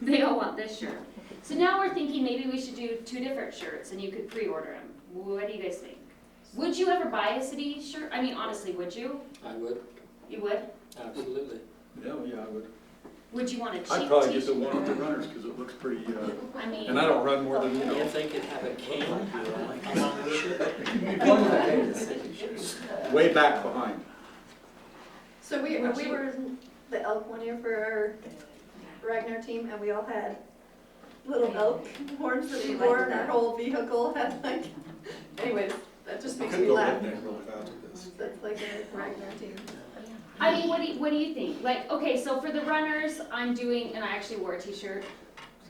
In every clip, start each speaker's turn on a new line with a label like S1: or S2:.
S1: They all want this shirt. So now we're thinking maybe we should do two different shirts and you could pre-order them. What do you guys think? Would you ever buy a city shirt? I mean, honestly, would you?
S2: I would,
S1: You would?
S2: absolutely.
S3: Yeah, yeah, I would.
S1: Would you want a cheap
S3: I'd probably
S1: t-shirt?
S3: get the one with the runners, because it looks pretty, uh,
S1: I mean,
S3: and I don't run more than, you know,
S2: If they could have a cane
S1: Oh
S2: along the shirt.
S3: way back behind.
S4: So we, when we were in the elk one year for our Ragnar team, and we all had little elk horns that we wore, and our whole vehicle had like, anyways, that just makes me laugh. That's like a Ragnar team.
S1: I mean, what do you, what do you think? Like, okay, so for the runners, I'm doing, and I actually wore a t-shirt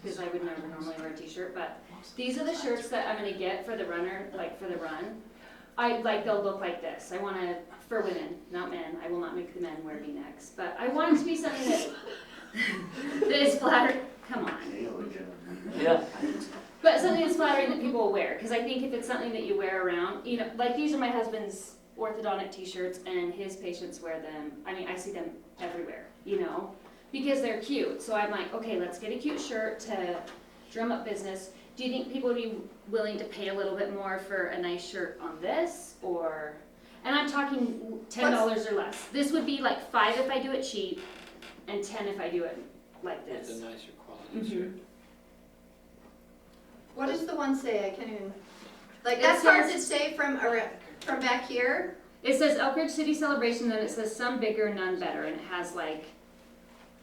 S1: because I would never normally wear a t-shirt, but these are the shirts that I'm gonna get for the runner, like for the run. I like they'll look like this. I want to for women, not men. I will not make the men wear V-necks, but I want it to be something that that is flattering. Come on,
S2: Yeah,
S1: but something that's flattering that people will wear. Because I think if it's something that you wear around, you know, like these are my husband's orthodontic T-shirts, and his patients wear them. I mean, I see them everywhere, you know, because they're cute. So I'm like, okay, let's get a cute shirt to drum up business. Do you think people would be willing to pay a little bit more for a nice shirt on this, or? And I'm talking ten dollars or less. This would be like five if I do it cheap, and ten if I do it like
S2: with a
S1: this.
S2: nicer quality
S1: Mhm.
S2: shirt.
S4: What does the one say? I can't even, like,
S1: It
S4: that's hard to
S1: says-
S4: say from, ar- from back here.
S1: It says Elk Ridge City Celebration, then it says some bigger, none better, and it has like,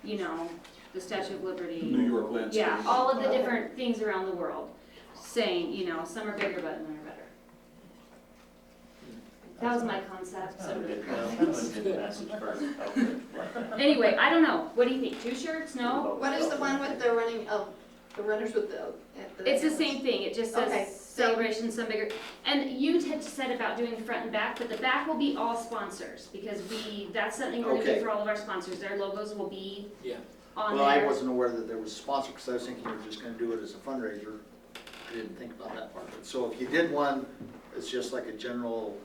S1: you know, the Statue of
S3: New
S1: Liberty.
S3: York landscape.
S1: Yeah, all of the different things around the world saying, you know, some are bigger, but none are better. That was my concept, so. Anyway, I don't know. What do you think? Two shirts? No?
S4: What is the one with the running elk, the runners with the elk? at
S1: It's the same thing. It just
S4: Okay,
S1: says
S4: so-
S1: celebration, some bigger. And you had said about doing front and back, but the back will be all sponsors because we, that's something we're gonna do
S5: Okay.
S1: for all of our sponsors. Their logos will be
S2: Yeah.
S1: on there.
S5: Well, I wasn't aware that there was sponsor, because I was thinking you were just gonna do it as a fundraiser. I didn't think about that part of it. So if you did one, it's just like a general,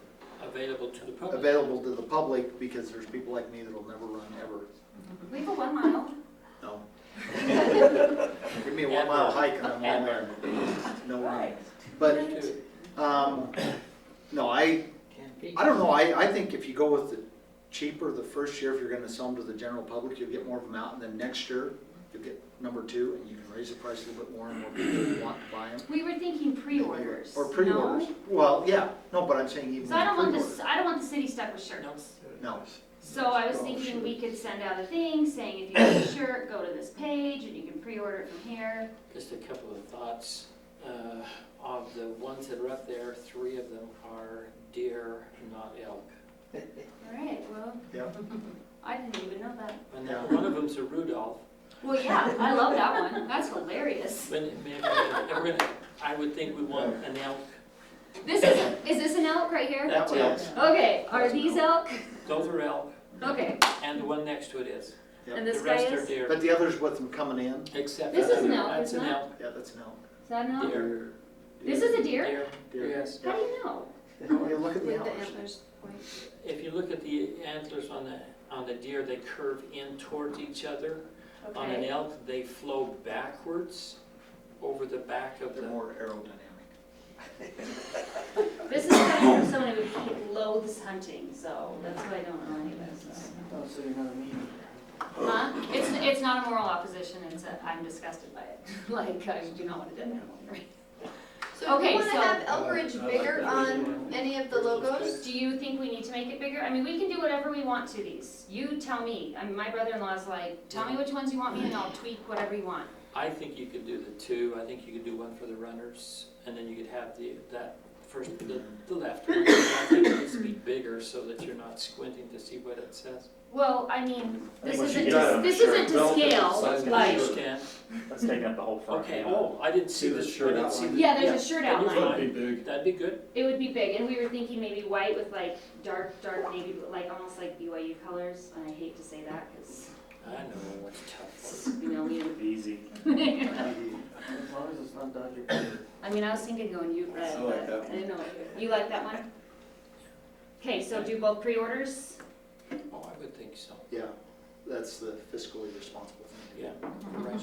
S2: Available to the public.
S5: available to the public, because there's people like me that'll never run ever.
S1: We have a one mile.
S5: No. Give me a one mile hike and I'm all there. No running. But,
S2: To-
S5: um, no, I, I don't know, I, I think if you go with the cheaper the first year, if you're gonna sell them to the general public, you'll get more of them out, and then next year, you'll get number two, and you can raise the price a little bit more, and more people want to buy them.
S1: We were thinking pre-orders.
S5: Or pre-orders,
S1: no?
S5: well, yeah, no, but I'm saying even
S1: So I don't want
S5: pre-orders.
S1: this, I don't want the city stuck with
S2: No.
S1: shirts.
S5: No,
S1: So I was thinking we could send out a thing saying if you have a shirt, go to this page and you can pre-order it from here.
S2: Just a couple of thoughts. Uh, Of the ones that are up there, three of them are deer, not elk.
S1: All right, well.
S5: Yep.
S1: I didn't even know that.
S2: And
S5: Yeah.
S2: one of them's a Rudolph.
S1: Well, yeah, I love that one. That's hilarious.
S2: But it- maybe we're gonna- I would think we want an elk.
S1: This is, is this an elk right here?
S2: That's
S5: Yeah.
S2: elk.
S1: Okay, are these elk?
S2: Those are elk,
S1: Okay,
S2: and the one next to it is.
S1: and
S2: The
S1: this guy
S2: rest are
S1: is, is
S2: deer.
S5: but the others with them coming in,
S2: Except.
S1: This
S2: for-
S1: is an elk,
S2: That's
S1: isn't
S2: an
S1: it?
S2: elk.
S5: yeah, that's an elk.
S1: that an elk?
S2: Deer.
S1: This is a deer?
S2: Deer,
S5: Deer.
S2: yes.
S1: How do you know?
S5: Oh, yeah, look at the
S4: With the
S5: antlers.
S4: antlers. pointing.
S2: If you look at the antlers on the, on the deer, they curve in towards each other. On an
S1: Okay.
S2: elk, they flow backwards over the back of
S5: They're
S2: the,
S5: more aerodynamic.
S1: This is coming from someone who loathes hunting, so that's why I don't know any of this.
S6: so you're not a mean.
S1: Huh? It's, it's not a moral opposition, it's a, I'm disgusted by it. Like, I do not want a dead animal.
S4: So if
S1: Okay,
S4: you wanna
S1: so-
S4: have elk ridge
S3: I like
S4: bigger
S3: that.
S4: on any of the logos?
S1: Do you think we need to make it bigger? I mean, we can do whatever we want to these. You tell me. I mean, my brother-in-law's like, tell me which ones you want me and I'll tweak whatever you want.
S2: I think you could do the two, I think you could do one for the runners, and then you could have the, that first, the, the left one. I think it needs to be bigger so that you're not squinting to see what it says.
S1: Well, I mean, this
S7: Once you
S1: isn't,
S7: get out
S1: to-
S7: of
S1: this
S7: shirt,
S1: isn't to
S3: belt,
S1: scale,
S3: size of
S1: like,
S3: shirt.
S2: Scan.
S7: Let's take up the whole front.
S2: Okay, oh, I didn't see
S3: See the
S2: this, I
S3: shirt
S2: didn't see
S3: outline?
S2: the-
S1: yeah, there's
S2: yeah.
S1: a shirt
S2: Can you
S1: outline.
S3: That'd be big.
S2: That'd be good.
S1: It would be big, and we were thinking maybe white with like dark, dark navy, blue, like almost like BYU colors, and I hate to say that, because,
S2: I know, it's tough.
S1: you know, we.
S7: Easy.
S6: As long as it's not Dodger Peter.
S1: I mean, I was thinking going you red,
S3: I
S1: but
S3: like that
S1: I didn't know, what- you like that one? Okay, so do both pre-orders?
S2: Oh, I would think so,
S5: Yeah, that's the fiscally responsible thing to do.
S2: yeah, right.